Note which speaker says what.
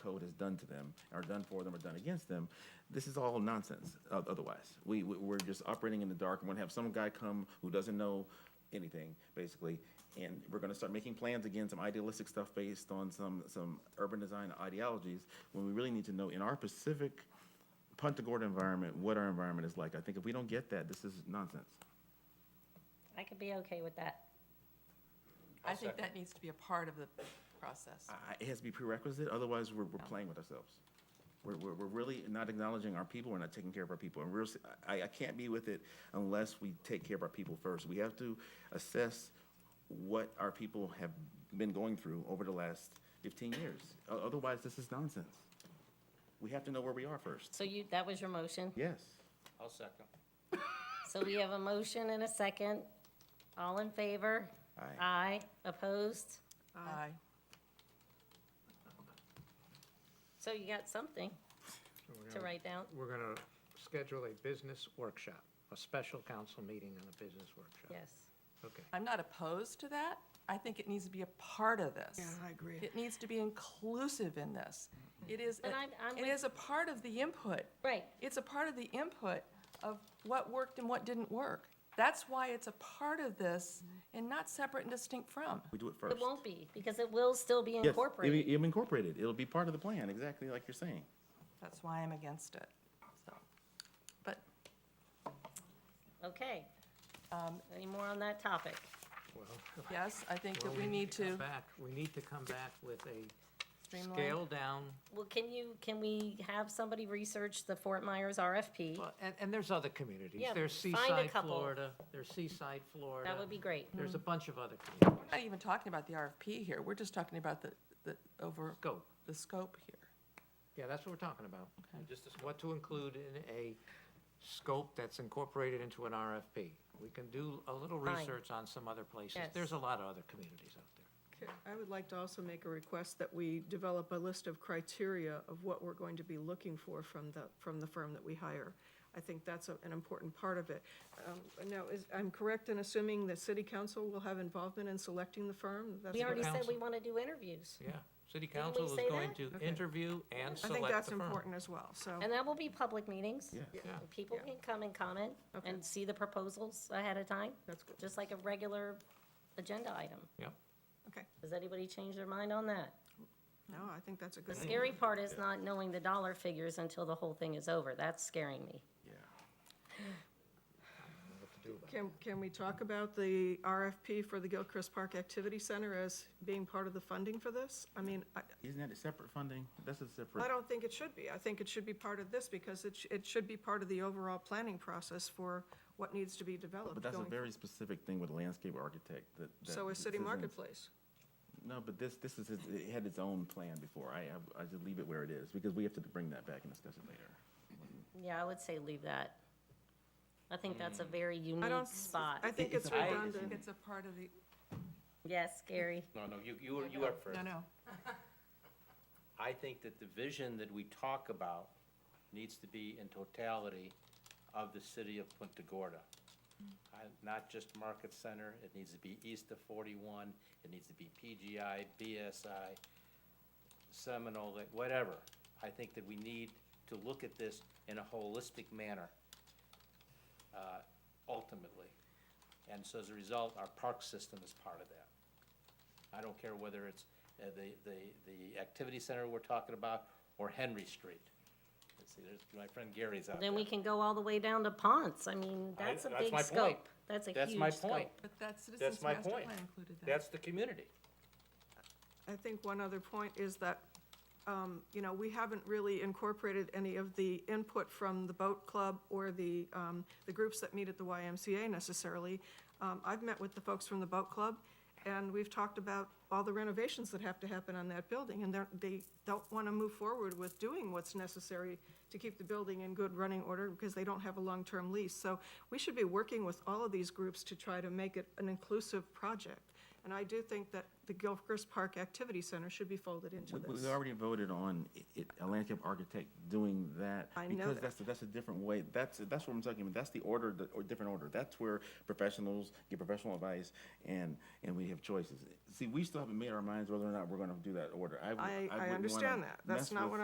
Speaker 1: code has done to them, or done for them, or done against them. This is all nonsense. o- Otherwise, we, we we're just operating in the dark. We're gonna have some guy come who doesn't know anything, basically, and we're gonna start making plans again, some idealistic stuff based on some some urban design ideologies. When we really need to know in our Pacific Punta Gorda environment, what our environment is like. I think if we don't get that, this is nonsense.
Speaker 2: I could be okay with that.
Speaker 3: I think that needs to be a part of the process.
Speaker 1: I- It has to be prerequisite, otherwise we're, we're playing with ourselves. We're, we're, we're really not acknowledging our people, we're not taking care of our people. And we're, s- I, I can't be with it unless we take care of our people first. We have to assess what our people have been going through over the last fifteen years. O- Otherwise, this is nonsense. We have to know where we are first.
Speaker 2: So you, that was your motion?
Speaker 1: Yes.
Speaker 4: I'll second.
Speaker 2: So we have a motion and a second. All in favor?
Speaker 1: Aye.
Speaker 2: Aye. Opposed?
Speaker 3: Aye.
Speaker 2: So you got something
Speaker 5: So we're
Speaker 2: to
Speaker 5: gonna-
Speaker 2: write down?
Speaker 5: We're going to schedule a business workshop, a special council meeting and a business workshop.
Speaker 2: Yes.
Speaker 5: Okay.
Speaker 3: I'm not opposed to that. I think it needs to be a part of this. Yeah, I agree. It needs to be inclusive in this. It is,
Speaker 2: And
Speaker 3: a-
Speaker 2: I'm- I'm
Speaker 3: it
Speaker 2: with-
Speaker 3: is a part of the input.
Speaker 2: Right.
Speaker 3: It's a part of the input of what worked and what didn't work. That's why it's a part of this and not separate and distinct from.
Speaker 1: We do it first.
Speaker 2: It won't be, because it will still be incorporated.
Speaker 1: It'll incorporate it. It'll be part of the plan, exactly like you're saying.
Speaker 3: That's why I'm against it, so. But
Speaker 2: Okay. Um, Any more on that topic?
Speaker 5: Well,
Speaker 3: yes, I think
Speaker 5: well,
Speaker 3: that we need
Speaker 5: come
Speaker 3: to
Speaker 5: Back, we need to come back with a
Speaker 3: streamline.
Speaker 5: scale-down,
Speaker 2: Well, can you, can we have somebody research the Fort Myers RFP?
Speaker 5: well, and, and there's other communities.
Speaker 2: Yeah,
Speaker 5: There's
Speaker 2: find a
Speaker 5: Seaside,
Speaker 2: couple.
Speaker 5: Florida, there's Seaside, Florida.
Speaker 2: That would be great. Mm-hmm.
Speaker 5: There's a bunch of other communities.
Speaker 3: We're not even talking about the RFP here. We're just talking about the, the over,
Speaker 5: Scope.
Speaker 3: the scope here.
Speaker 5: Yeah, that's what we're talking about. Just what to include in a scope that's incorporated into an RFP. We can do a little
Speaker 2: Fine.
Speaker 5: research on some other places.
Speaker 2: Yes.
Speaker 5: There's a lot of other communities out there.
Speaker 6: Okay, I would like to also make a request that we develop a list of criteria of what we're going to be looking for from the, from the firm that we hire. I think that's a- an important part of it. Um, Now, is, I'm correct in assuming that city council will have involvement in selecting the firm? That's
Speaker 2: We
Speaker 6: what-
Speaker 2: already said
Speaker 5: council.
Speaker 2: we want to do interviews,
Speaker 5: Yeah, city
Speaker 2: we
Speaker 5: council is
Speaker 2: say
Speaker 5: going
Speaker 2: that?
Speaker 5: to interview and
Speaker 6: I
Speaker 5: select
Speaker 6: think that's
Speaker 5: the firm.
Speaker 6: important as well, so.
Speaker 2: and that will be public meetings.
Speaker 1: Yeah.
Speaker 5: Yeah.
Speaker 2: And People can come and comment and see the proposals ahead of time.
Speaker 6: That's good.
Speaker 2: Just like a regular agenda item.
Speaker 5: Yep,
Speaker 6: Okay,
Speaker 2: Does anybody change their mind on that?
Speaker 6: no, I think that's a
Speaker 2: The
Speaker 6: good. idea.
Speaker 2: scary part is not knowing the dollar figures until the whole thing is over. That's scaring me.
Speaker 1: Yeah.
Speaker 6: Can, can we talk about the RFP for the Gilchrist Park Activity Center as being part of the funding for this? I mean, I,
Speaker 1: Isn't that a separate funding? That's a separate.
Speaker 6: I don't think it should be. I think it should be part of this because it, sh- it should be part of the overall planning process for what needs to be developed.
Speaker 1: But that's a
Speaker 6: going-
Speaker 1: very specific thing with a landscape architect that. that
Speaker 6: So is
Speaker 1: this
Speaker 6: City
Speaker 1: isn't-
Speaker 6: Marketplace.
Speaker 1: No, but this, this is, it had its own plan before. I, I- I just leave it where it is because we have to bring that back and discuss it later.
Speaker 2: Yeah, I would say leave that. I think that's a very
Speaker 6: Mm. I
Speaker 2: unique
Speaker 6: don't,
Speaker 2: spot.
Speaker 6: I think it's
Speaker 3: I
Speaker 6: redundant.
Speaker 3: think it's a part of the,
Speaker 2: Yes, scary.
Speaker 4: No, no, you, you, are- you are first.
Speaker 3: no, no.
Speaker 4: I think that the vision that we talk about needs to be in totality of the city of Punta Gorda.
Speaker 2: Hmm.
Speaker 4: I- Not just Market Center, it needs to be east of forty-one, it needs to be PGI, BSI, Seminole, like, whatever. I think that we need to look at this in a holistic manner, uh, ultimately. And so as a result, our park system is part of that. I don't care whether it's uh, the, the, the activity center we're talking about or Henry Street. Let's see, there's, my friend Gary's out there.
Speaker 2: Then we can go all the way down to Ponce. I mean,
Speaker 4: I-
Speaker 2: that's a
Speaker 4: that's
Speaker 2: big
Speaker 4: my point.
Speaker 2: scope. That's a
Speaker 4: That's my
Speaker 2: huge
Speaker 4: point.
Speaker 2: scope.
Speaker 3: But that Citizens
Speaker 4: That's my
Speaker 3: Master
Speaker 4: point.
Speaker 3: Plan included that.
Speaker 4: That's the community.
Speaker 6: I think one other point is that, um, you know, we haven't really incorporated any of the input from the boat club or the, um, the groups that meet at the YMCA necessarily. Um, I've met with the folks from the boat club, and we've talked about all the renovations that have to happen on that building, and they're, they don't want to move forward with doing what's necessary to keep the building in good running order because they don't have a long-term lease. So we should be working with all of these groups to try to make it an inclusive project And I do think that the Gilchrist Park Activity Center should be folded into
Speaker 1: We,
Speaker 6: this.
Speaker 1: we already voted on i- it, a landscape architect doing that.
Speaker 6: I know
Speaker 1: Because
Speaker 6: that.
Speaker 1: that's, that's a different way, that's, that's what I'm talking about, that's the order, the- or different order. That's where professionals get professional advice and, and we have choices. See, we still haven't made our minds whether or not we're gonna do that order. w-
Speaker 6: I, I
Speaker 1: wouldn't wanna
Speaker 6: understand that. That's
Speaker 1: mess
Speaker 6: not
Speaker 1: with-
Speaker 6: what